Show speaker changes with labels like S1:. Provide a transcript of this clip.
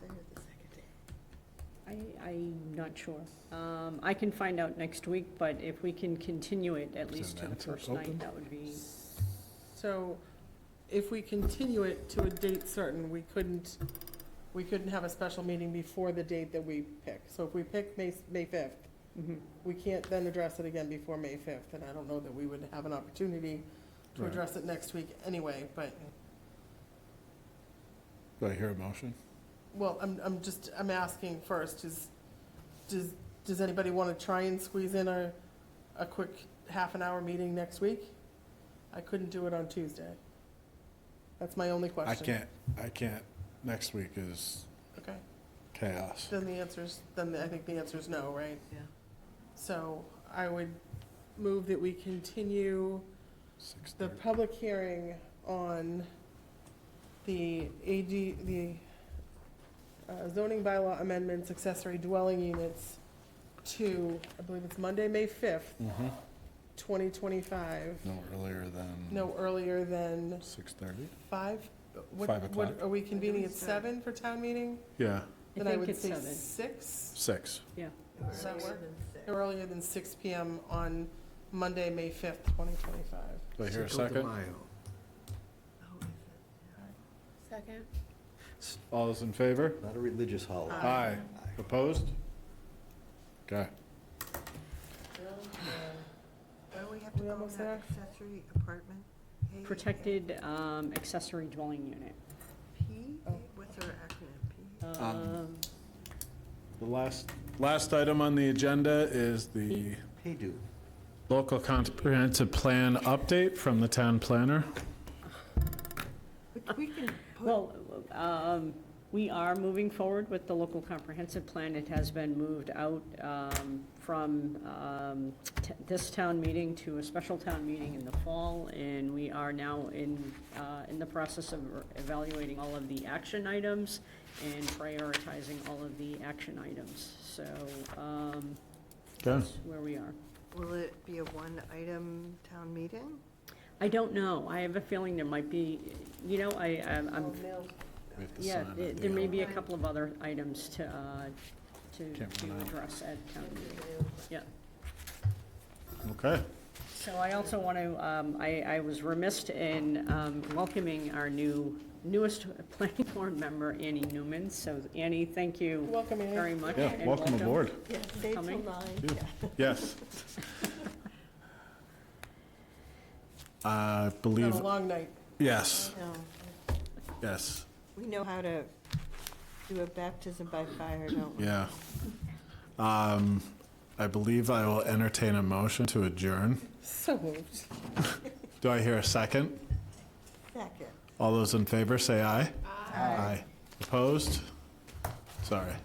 S1: I'm not sure. Um, I can find out next week, but if we can continue it at
S2: Is
S1: least to
S2: it
S1: the
S2: announced or
S1: first night,
S2: open?
S1: that would be,
S3: So if we continue it to a date certain, we couldn't, we couldn't have a special meeting before the date that we pick. So if we pick May, May fifth,
S1: Mhm.
S3: we can't then address it again before May fifth, and I don't know that we would have an opportunity to
S2: Right.
S3: address it next week anyway, but,
S2: Do I hear a motion?
S3: well, I'm, I'm just, I'm asking first, is, does, does anybody want to try and squeeze in a, a quick half an hour meeting next week? I couldn't do it on Tuesday. That's my only
S2: I
S3: question.
S2: can't, I can't. Next week is
S3: Okay.
S2: chaos.
S3: Then the answer's, then I think the answer is no, right?
S4: Yeah.
S3: So I would move that we continue
S2: Six
S3: the
S2: thirty.
S3: public hearing on the AD, the uh, zoning bylaw amendments, accessory dwelling units to, I believe it's Monday, May fifth,
S2: Mhm.
S3: twenty twenty-five,
S2: No earlier than.
S3: no earlier than
S2: Six thirty?
S3: five? What-
S2: Five
S3: what-
S2: o'clock.
S3: Are we convening at
S4: it's seven.
S3: seven for town meeting?
S2: Yeah,
S1: I
S3: Then I
S1: think
S3: would
S1: it's
S3: say
S1: seven.
S3: six?
S2: six.
S3: Does that work?
S4: Six.
S3: No earlier than six PM on Monday, May fifth, twenty twenty-five.
S2: Do I hear a
S5: Cinco de
S2: second?
S5: Mayo.
S4: Oh, is it?
S1: Second?
S2: All those in favor?
S5: Not a religious holiday.
S4: Uh,
S2: Aye. Opposed? Okay.
S4: Where we have to
S3: We
S4: go
S3: almost
S4: now,
S3: there?
S4: accessory apartment? A-
S1: Protected um, accessory dwelling unit.
S4: P,
S3: Oh.
S4: what's our acronym,
S1: Um,
S2: The last, last item on the agenda is the
S5: Hey, dude.
S2: local comprehensive plan update from the town planner.
S4: P? But We can put,
S1: Well, um, we are moving forward with the local comprehensive plan. It has been moved out um, from um, t- this town meeting to a special town meeting in the fall, and we are now in, uh, in the process of evaluating all of the action items and prioritizing all of the action items. So um,
S2: Okay.
S1: that's where we are.
S4: will it be a one-item town meeting?
S1: I don't know. I have a feeling there might be, you know, I, I'm I'm
S4: Or mail-
S2: We have to
S1: Yeah,
S2: sign
S1: there
S2: it.
S1: there may be a
S4: Right.
S1: couple of other items to, uh, to
S2: Can't
S1: to
S2: run out.
S1: address at town meeting. Yeah.
S2: Okay.
S1: So I also want to, um, I, I was remiss in, um, welcoming our new, newest planning board member, Annie Newman. So Annie, thank you
S3: Welcome,
S1: very
S3: Annie.
S1: much.
S2: Yeah,
S1: and
S2: welcome aboard.
S4: Yeah, stay till
S1: Coming.
S4: nine.
S2: Yes. I
S3: It's
S2: believe,
S3: been a long night.
S2: yes,
S4: No,
S2: yes,
S4: we know how to do a baptism by fire, don't we?
S2: yeah. Um, I believe I will entertain a motion to adjourn.
S3: So moved.
S2: Do I hear a second?
S4: Second.
S2: All those in favor, say aye. Aye. Opposed? Sorry.